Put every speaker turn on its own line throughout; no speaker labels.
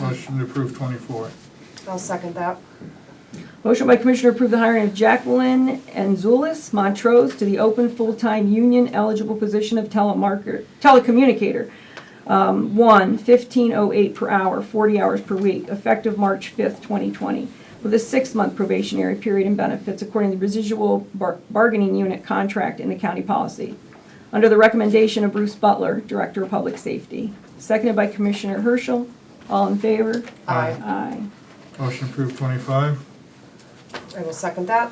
Motion to approve twenty-four.
I'll second that.
Motion by Commissioner to approve the hiring of Jacqueline Anzulis Montrose to the open full-time union eligible position of telemarketer, telecommunicator. Um, One, 1508 per hour, 40 hours per week, effective March 5th, 2020, with a six-month probationary period and benefits according to the residual bar- bargaining unit contract in the county policy. Under the recommendation of Bruce Butler, Director of Public Safety. Seconded by Commissioner Herschel. All in favor?
Aye.
Aye.
Motion to approve twenty-five.
I will second that.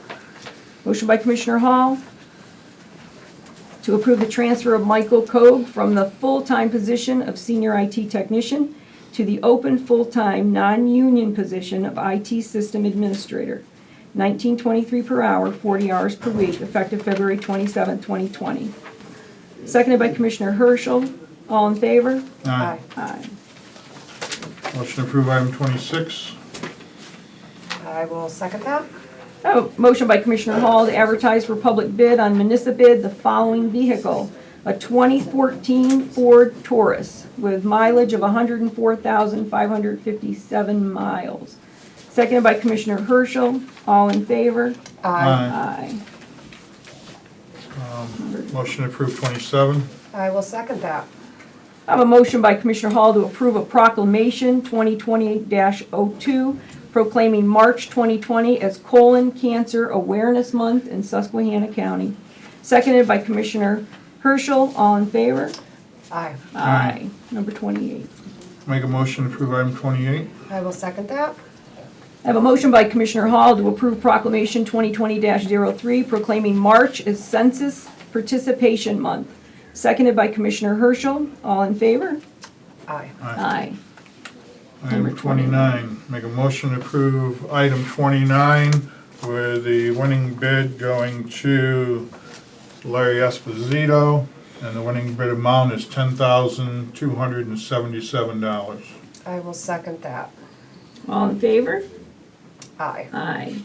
Motion by Commissioner Hall to approve the transfer of Michael Koch from the full-time position of senior IT technician to the open full-time, non-union position of IT system administrator, 1923 per hour, 40 hours per week, effective February 27, 2020. Seconded by Commissioner Herschel. All in favor?
Aye.
Aye.
Motion to approve item twenty-six.
I will second that.
Oh, Motion by Commissioner Hall to advertise for public bid on municipal bid the following vehicle. A 2014 Ford Taurus with mileage of 104,557 miles. Seconded by Commissioner Herschel. All in favor?
Aye.
Aye.
Motion to approve twenty-seven.
I will second that.
I have a motion by Commissioner Hall to approve a proclamation 2020-02 proclaiming March 2020 as Colon Cancer Awareness Month in Susquehanna County. Seconded by Commissioner Herschel. All in favor?
Aye.
Aye. Number 28.
Make a motion to approve item twenty-eight.
I will second that.
I have a motion by Commissioner Hall to approve proclamation 2020-03 proclaiming March as Census Participation Month. Seconded by Commissioner Herschel. All in favor?
Aye.
Aye.
Item
Number 29.
twenty-nine. Make a motion to approve item twenty-nine with the winning bid going to Larry Esposito. And the winning bid amount is ten thousand two hundred and seventy-seven dollars.
I will second that.
All in favor?
Aye.
Aye.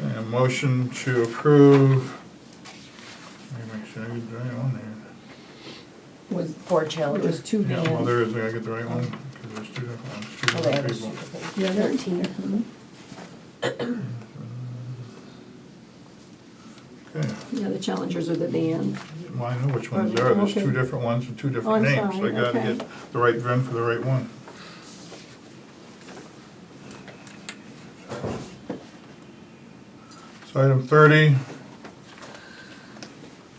And a motion to approve. Let me make sure I get the right one here.
Was
Four
It was
challenges.
two
Yeah, well,
vans.
there is, I gotta get the right one, because there's two different ones, two
Oh, they have
different
a
people.
stupid thing.
Yeah, there- uh-huh.
Okay,
yeah, the Challengers are the van.
well, I know which ones there are, there's two
Okay.
different ones with two
Oh,
different
I'm
names, so I
sorry,
gotta
okay.
get the right VIN for the right one. So item thirty.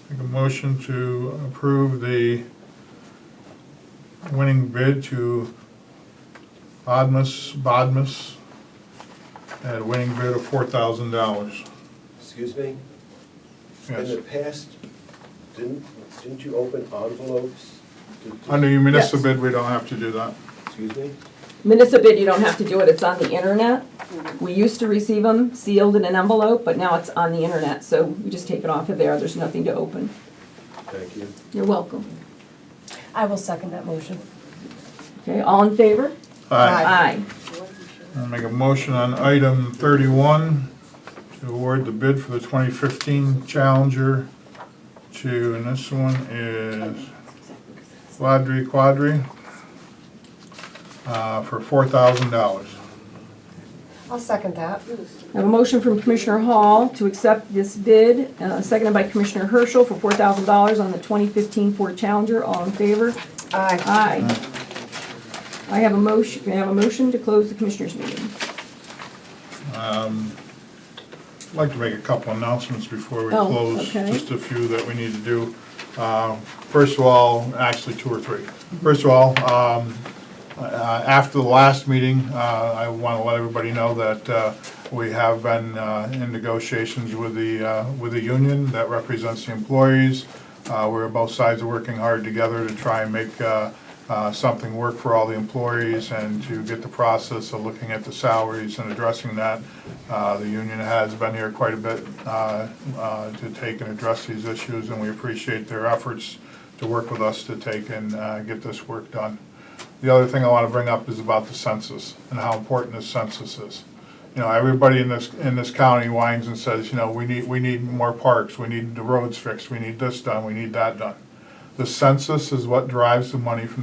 Make a motion to approve the winning bid to Bodmas, Bodmas, at a winning bid of four thousand dollars.
Excuse me? In
Yes,
the past, didn't, didn't you open envelopes? to- to-
under your municipal
Yes.
bid, we don't have to do that.
Excuse me?
Municipal bid, you don't have to do it, it's on the internet. We used to receive them sealed in an envelope, but now it's on the internet, so we just take it off of there, there's nothing to open.
Thank you.
You're welcome.
I will second that motion.
Okay, all in favor?
Aye.
Aye.
I'll make a motion on item thirty-one to award the bid for the twenty fifteen Challenger to, and this one is Quadri Quadri uh, for four thousand dollars.
I'll second that.
I have a motion from Commissioner Hall to accept this bid, uh, seconded by Commissioner Herschel for $4,000 on the 2015 Ford Challenger, all in favor?
Aye.
Aye. I have a motion, may I have a motion to close the Commissioners' meeting?
I'd like to make a couple announcements before we
Oh,
close,
okay.
just a few that we need to do. Uh, First of all, actually two or three. First of all, um, uh, after the last meeting, uh, I want to let everybody know that uh, we have been uh, in negotiations with the, uh, with the union that represents the employees. Uh, We're both sides are working hard together to try and make uh, uh, something work for all the employees and to get the process of looking at the salaries and addressing that. Uh, The union has been here quite a bit uh, uh, to take and address these issues, and we appreciate their efforts to work with us to take and uh, get this work done. The other thing I want to bring up is about the census and how important this census is. You know, everybody in this, in this county whines and says, you know, we need, we need more parks, we need the roads fixed, we need this done, we need that done. The census is what drives the money from